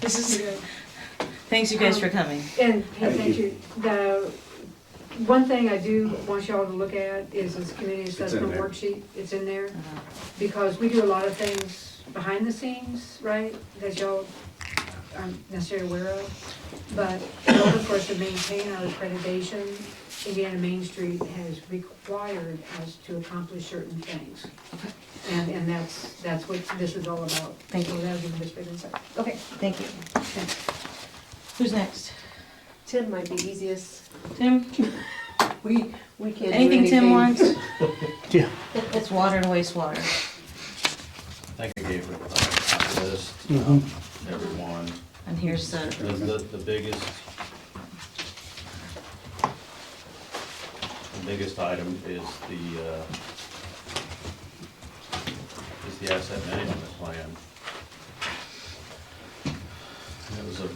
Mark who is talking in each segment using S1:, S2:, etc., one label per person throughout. S1: This is good. Thanks you guys for coming.
S2: And,
S3: Thank
S2: and thank you, the, one thing I do want y'all to look at is this community
S3: in
S2: assessment
S3: there.
S2: worksheet, it's in there.
S1: Uh,
S2: Because we do a lot of things behind the scenes, right, that y'all aren't necessarily aware of. But in order for us to maintain our accreditation, Indiana Main Street has required us to accomplish certain things. And, and that's, that's what this is all about.
S1: Thank you.
S2: So that was a bit of insight. Okay,
S1: Thank you.
S2: thanks.
S1: Who's next?
S4: Tim might be easiest.
S1: Tim?
S4: We, we can't do
S1: Anything Tim wants?
S5: Yeah.
S1: It's water and wastewater.
S6: I think I gave her a list, um, everyone.
S1: And here's
S6: The,
S1: the,
S6: the the biggest, the biggest item is the, uh, is the asset management plan. And It was a,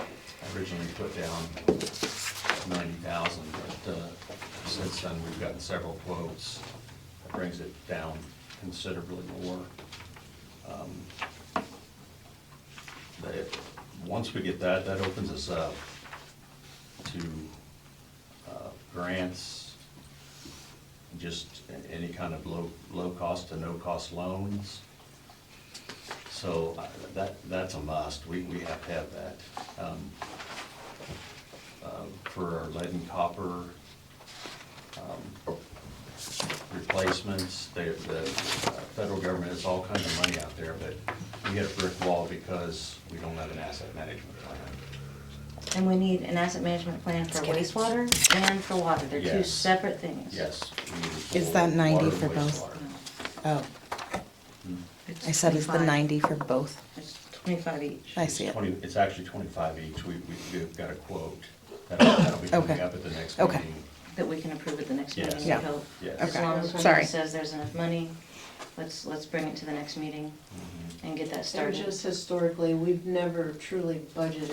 S6: I originally put down ninety thousand, but, uh, since then, we've gotten several quotes. That Brings it down considerably more. Um, that, once we get that, that opens us up to uh, grants, just a- any kind of low, low-cost to no-cost loans. So I- that, that's a must, we, we have to have that. Um, uh, For our lead and copper um, replacements, they, the uh, federal government has all kinds of money out there, but we hit a brick wall because we don't have an asset management plan.
S1: and we need an asset management plan for wastewater and for water. They're two
S6: Yes.
S1: separate things.
S6: Yes. we need a full
S7: Is that 90
S6: water
S7: for
S6: and
S7: both?
S6: wastewater.
S7: Oh,
S1: It's
S7: I said it's the
S1: 25.
S7: 90 for both.
S1: It's twenty-five each.
S7: I
S6: It's
S7: see it.
S6: 20 It's actually twenty-five each, we, we- we've got a quote, that'll, that'll be coming
S7: Okay.
S6: up at the next
S7: Okay.
S6: meeting.
S1: that we can approve at the next
S6: Yes.
S1: meeting, we
S7: Yeah.
S1: hope.
S6: Yes.
S1: As
S7: Okay.
S1: long as
S7: Sorry.
S1: Wendy says there's enough money, let's, let's bring it to the next meeting
S6: Mhm.
S1: and get that
S4: And
S1: started.
S4: just historically, we've never truly budgeted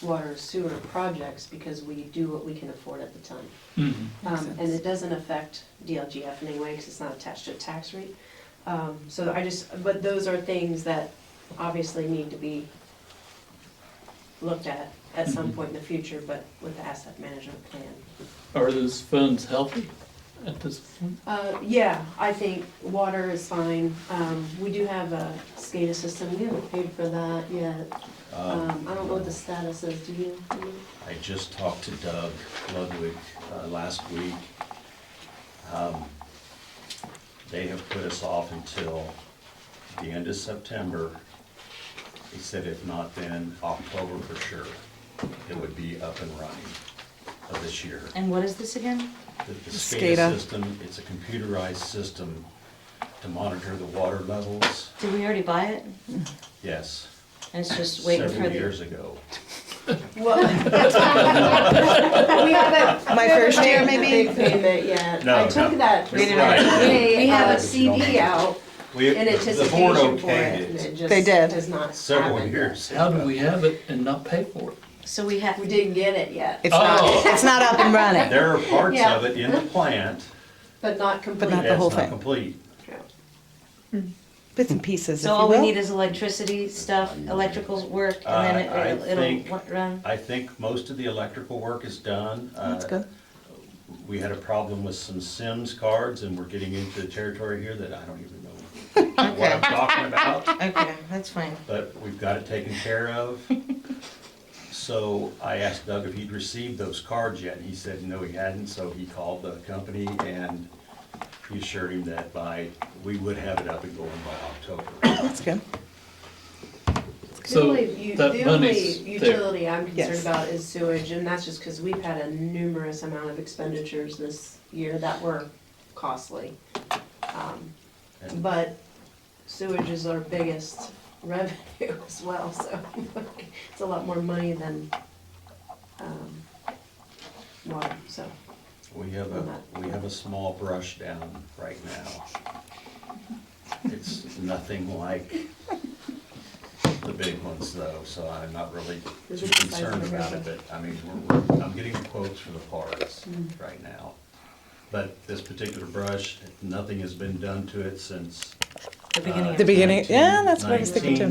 S4: water sewer projects because we do what we can afford at the time.
S8: Mm-hmm.
S4: Um, And it doesn't affect DLGF in any way because it's not attached to a tax rate. Um, So I just, but those are things that obviously need to be looked at at some point in the future, but with the asset management plan.
S8: Are those funds healthy at this point?
S4: Uh, yeah, I think water is fine. Um, we do have a SCADA system. We haven't paid for that yet.
S6: Uh,
S4: Um, I don't know what the status is. Do you?
S6: I just talked to Doug Ludwig uh, last week. Um, They have put us off until the end of September. He said if not then, October for sure, it would be up and running of this year.
S1: And what is this again?
S6: The the
S7: SCADA.
S6: SCADA system, it's a computerized system to monitor the water levels.
S1: Did we already buy it?
S6: Yes,
S1: And it's just waiting for
S6: several years
S1: the,
S6: ago.
S4: Well, we haven't.
S7: My first year,
S4: made the
S7: maybe?
S4: Big payment yet.
S6: No,
S4: I took
S6: no.
S4: that.
S6: We didn't have it.
S4: We have
S6: uh,
S4: a CD out
S6: We-
S4: in
S6: the board
S4: anticipation for
S6: okayed
S4: it, and it
S7: They
S4: just
S7: did.
S4: does not
S6: Several
S4: happen.
S6: years.
S8: How do we have it and not pay for it?
S1: so we have,
S4: We didn't get it yet,
S7: It's not,
S8: Oh.
S7: it's not up and running.
S6: There are parts
S4: Yeah.
S6: of it in the plant
S4: but not complete.
S7: Not the
S6: that's
S7: whole
S6: not
S7: thing.
S6: complete.
S7: Bits and pieces, if
S1: so
S7: you
S1: all we
S7: will.
S1: need is electricity stuff, electricals work, and
S6: Uh, I
S1: then it-
S6: think-
S1: it'll, it'll run.
S6: I think most of the electrical work is done.
S7: Oh, That's
S6: Uh,
S7: good.
S6: We had a problem with some Sims cards, and we're getting into territory here that I don't even know what I'm
S1: Okay,
S6: talking about.
S1: okay, that's fine.
S6: but we've got it taken care of. So I asked Doug if he'd received those cards yet, and he said no, he hadn't, so he called the company and he assured him that by, we would have it up and going by October.
S7: That's good.
S4: The
S8: So
S4: only, u-
S8: that
S4: the only
S8: money's there.
S4: utility I'm concerned
S7: Yes.
S4: about is sewage, and that's just because we've had a numerous amount of expenditures this year that were costly. Um,
S6: And
S4: But sewage is our biggest revenue as well, so it's a lot more money than um, water, so.
S6: We have a, we have a small brush down right now. It's nothing like the big ones though, so I'm not really
S4: Is
S6: too
S4: it the size of
S6: concerned
S4: the
S6: about it,
S4: river?
S6: but I mean, we're, we're- I'm getting quotes for the parts
S4: Mm-hmm.
S6: right now. But this particular brush, nothing has been done to it since. uh,
S1: The beginning of.
S7: The beginning- yeah, that's what I was thinking too.